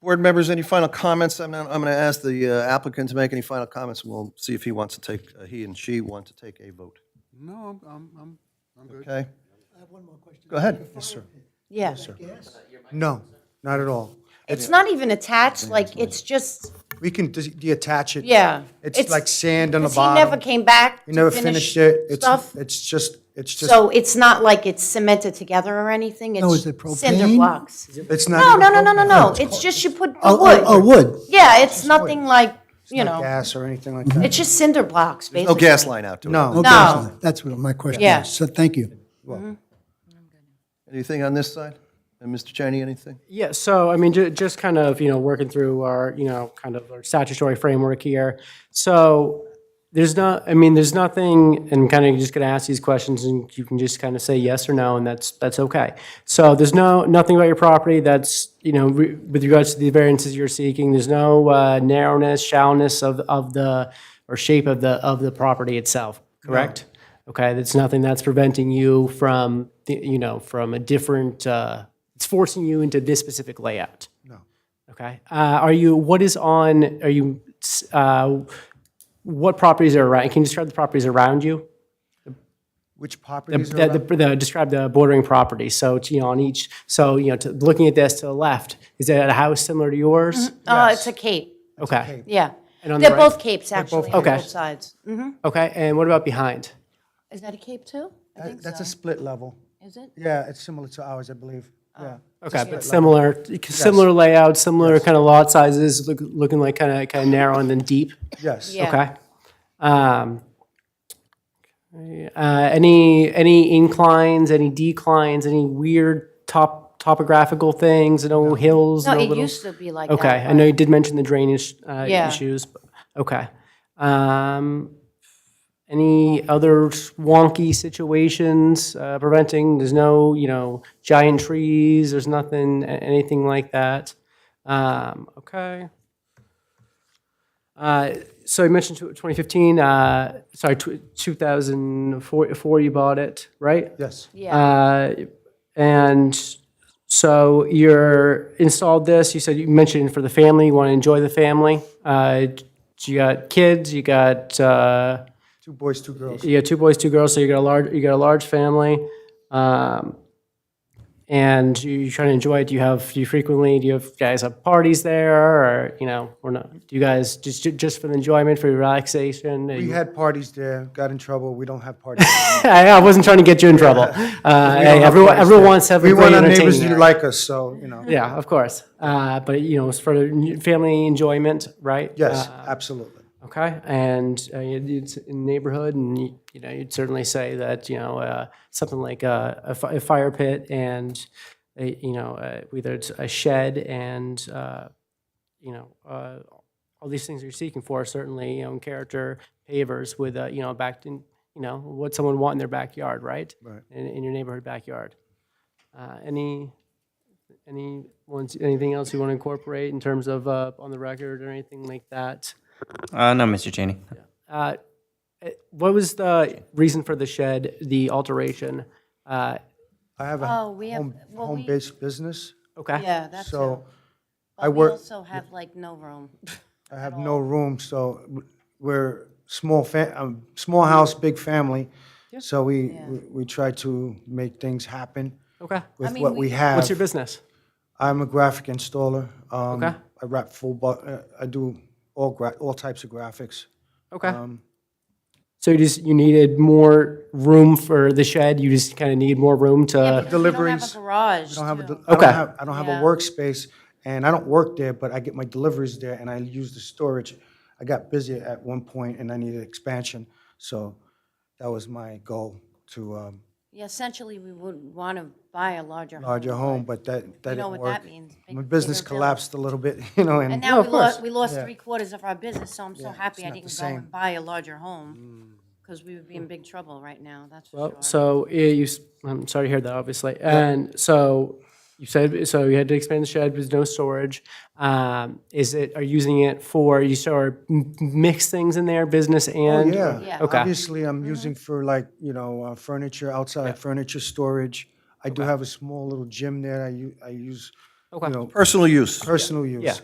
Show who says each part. Speaker 1: Board members, any final comments? I'm, not- I'm going to ask the uh, applicant to make any final comments, and we'll see if he wants to take, uh, he and she want to take a vote.
Speaker 2: No, I'm- I'm, I'm, I'm good.
Speaker 1: Okay? I have one more question. Go ahead.
Speaker 3: Yeah.
Speaker 4: No, not at all.
Speaker 3: It's not even attached, like, it's just,
Speaker 4: We can dis- detach it.
Speaker 3: yeah.
Speaker 4: It's like sand on the
Speaker 3: 'cause He never
Speaker 4: bottom.
Speaker 3: came back
Speaker 4: We never
Speaker 3: to
Speaker 4: finished
Speaker 3: finish
Speaker 4: it. It's,
Speaker 3: stuff.
Speaker 4: it's just, it's just,
Speaker 3: So it's not like it's cemented together or anything?
Speaker 5: No,
Speaker 3: It's
Speaker 5: is it propane?
Speaker 3: cinder blocks?
Speaker 4: it's
Speaker 3: No,
Speaker 4: not
Speaker 3: no, no, no, no, no. It's just you put the
Speaker 5: Oh,
Speaker 3: wood.
Speaker 5: oh, oh, wood.
Speaker 3: Yeah, it's nothing like, you know,
Speaker 4: gas or anything like that.
Speaker 3: Mm-hmm. it's just cinder blocks,
Speaker 1: No
Speaker 3: basically.
Speaker 1: gas line out to it.
Speaker 4: No.
Speaker 5: Okay,
Speaker 3: No.
Speaker 5: so That's what my question
Speaker 3: Yeah.
Speaker 5: is. So thank you.
Speaker 1: Anything on this side? And Mr. Cheney, anything?
Speaker 6: Yeah, so I mean, ju- just kind of, you know, working through our, you know, kind of our statutory framework here. So there's not, I mean, there's nothing, and kind of just gonna ask these questions and you can just kind of say yes or no, and that's, that's okay. So there's no, nothing about your property that's, you know, re- with regards to the variances you're seeking, there's no uh, narrowness, shallowness of, of the, or shape of the, of the property itself, correct? Okay, that's nothing that's preventing you from, the- you know, from a different, uh, it's forcing you into this specific layout? No. Okay, uh, are you, what is on, are you, s- uh, what properties are around, can you describe the properties around you?
Speaker 4: Which properties are
Speaker 6: The,
Speaker 4: around?
Speaker 6: the, the- describe the bordering properties, so, you know, on each, so, you know, to, looking at this to the left, is that a house similar to yours?
Speaker 3: Oh, it's a cape,
Speaker 6: Okay,
Speaker 3: yeah.
Speaker 6: on
Speaker 3: They're
Speaker 6: the right-
Speaker 3: both capes, actually, on
Speaker 6: Okay.
Speaker 3: both sides. Mhm.
Speaker 6: okay, and what about behind?
Speaker 3: Is that a cape too? I think
Speaker 4: That's
Speaker 3: so.
Speaker 4: a split level.
Speaker 3: Is it? Oh.
Speaker 4: Yeah, it's similar to ours, I believe. Yeah.
Speaker 6: Okay, but similar, similar layout, similar kind of lot sizes, look- looking like kind of, kind of narrow and then deep?
Speaker 4: Yes.
Speaker 3: Yeah.
Speaker 6: Okay. Um, uh, any any inclines, any declines, any weird top topographical things? No hills.
Speaker 3: No,
Speaker 6: No,
Speaker 3: it
Speaker 6: little.
Speaker 3: used to be like that.
Speaker 6: okay, I know you did mention the drainage uh,
Speaker 3: Yeah.
Speaker 6: issues. but- Okay. Um, any other wonky situations uh, preventing? There's no you know giant trees. There's nothing a- anything like that. Um, okay. Uh, So you mentioned tw- 2015, uh, sorry, tw- 2004 four you bought it, right?
Speaker 4: Yes.
Speaker 3: Yeah,
Speaker 6: Uh, And so you're installed this, you said, you mentioned for the family, you want to enjoy the family. Uh, You got kids, you got, uh,
Speaker 4: Two boys, two girls.
Speaker 6: you got two boys, two girls, so you got a large, you got a large family. Um, And you you try to enjoy it, do you have, do you frequently, do you have, guys have parties there or, you know, or not? Do you guys, just, just for the enjoyment, for your relaxation?
Speaker 4: We had parties there, got in trouble. We don't have parties. anymore.
Speaker 6: I, I wasn't trying to get you in trouble. Uh,
Speaker 4: We don't
Speaker 6: hey,
Speaker 4: have
Speaker 6: everyone,
Speaker 4: parties
Speaker 6: everyone
Speaker 4: there.
Speaker 6: wants to have a
Speaker 4: We
Speaker 6: great
Speaker 4: want our neighbors
Speaker 6: entertaining
Speaker 4: to
Speaker 6: area.
Speaker 4: like us, so, you know.
Speaker 6: Yeah, of course. Uh, but you know, it's for n- family enjoyment, right?
Speaker 4: Yes,
Speaker 3: Uh-huh.
Speaker 6: Uh,
Speaker 4: absolutely.
Speaker 6: okay. And uh, it- it's in the neighborhood, and you, you know, you'd certainly say that you know uh, something like uh, a, a, fi- a fire pit and a, you know uh, whether it's a shed and uh, you know uh, all these things you're seeking for certainly you know in character pavers with uh, you know back in you know what someone want in their backyard, right? Right. In, in your neighborhood backyard. Uh, any any ones anything else you want to incorporate in terms of uh, on the record or anything like that?
Speaker 7: Uh, no, Mr. Cheney.
Speaker 6: Uh, eh, What was the reason for the shed, the alteration? Uh,
Speaker 4: I have a
Speaker 3: Oh, we have-
Speaker 4: home-
Speaker 3: well, we-
Speaker 4: home-based business,
Speaker 6: Okay,
Speaker 3: yeah, that's it.
Speaker 4: so I
Speaker 3: But we
Speaker 4: work-
Speaker 3: also have like no room.
Speaker 4: I have no room, so w- we're small, fa- um, small house, big family. So we, we we try to make things happen
Speaker 6: okay.
Speaker 4: with
Speaker 3: mean,
Speaker 4: what
Speaker 3: we-
Speaker 4: we have.
Speaker 6: What's your business?
Speaker 4: I'm a graphic installer. Um,
Speaker 6: Okay.
Speaker 4: I wrap full, but uh, I do all gra- all types of graphics.
Speaker 6: Okay.
Speaker 4: um,
Speaker 6: So you just, you needed more room for the shed, you just kind of need more room to,
Speaker 4: Deliveries.
Speaker 3: We don't have a garage,
Speaker 4: I don't have a,
Speaker 3: too.
Speaker 4: del- I don't
Speaker 6: Okay.
Speaker 4: have, I don't have
Speaker 3: Yeah.
Speaker 4: a workspace, and I don't work there, but I get my deliveries there, and I use the storage. I got busy at one point, and I needed expansion, so that was my goal to um,
Speaker 3: Yeah, essentially, we would want to buy a larger home.
Speaker 4: larger home, but that that
Speaker 3: You know
Speaker 4: didn't
Speaker 3: what that
Speaker 4: work.
Speaker 3: means. big-
Speaker 4: My business
Speaker 3: bigger bill.
Speaker 4: collapsed a little bit, you know,
Speaker 3: And
Speaker 4: and
Speaker 3: now we lost,
Speaker 6: course.
Speaker 3: we lost three quarters of our business, so I'm so happy I didn't go
Speaker 4: same. Mm.
Speaker 3: and buy a larger home, because we would be in big trouble right now, that's for sure.
Speaker 6: so eh, you, s- I'm sorry to hear that, obviously. And so you said, so you had to expand the shed, there's no storage. Um, Is it, are you using it for, you sort of m- mix things in there, business and?
Speaker 4: Oh, yeah.
Speaker 3: Yeah. Mm-hmm.
Speaker 6: Okay.
Speaker 4: Obviously, I'm using for like, you know, uh, furniture, outside furniture storage. I do have a small little gym there I u- I use, you know,
Speaker 1: Personal use.
Speaker 4: personal use.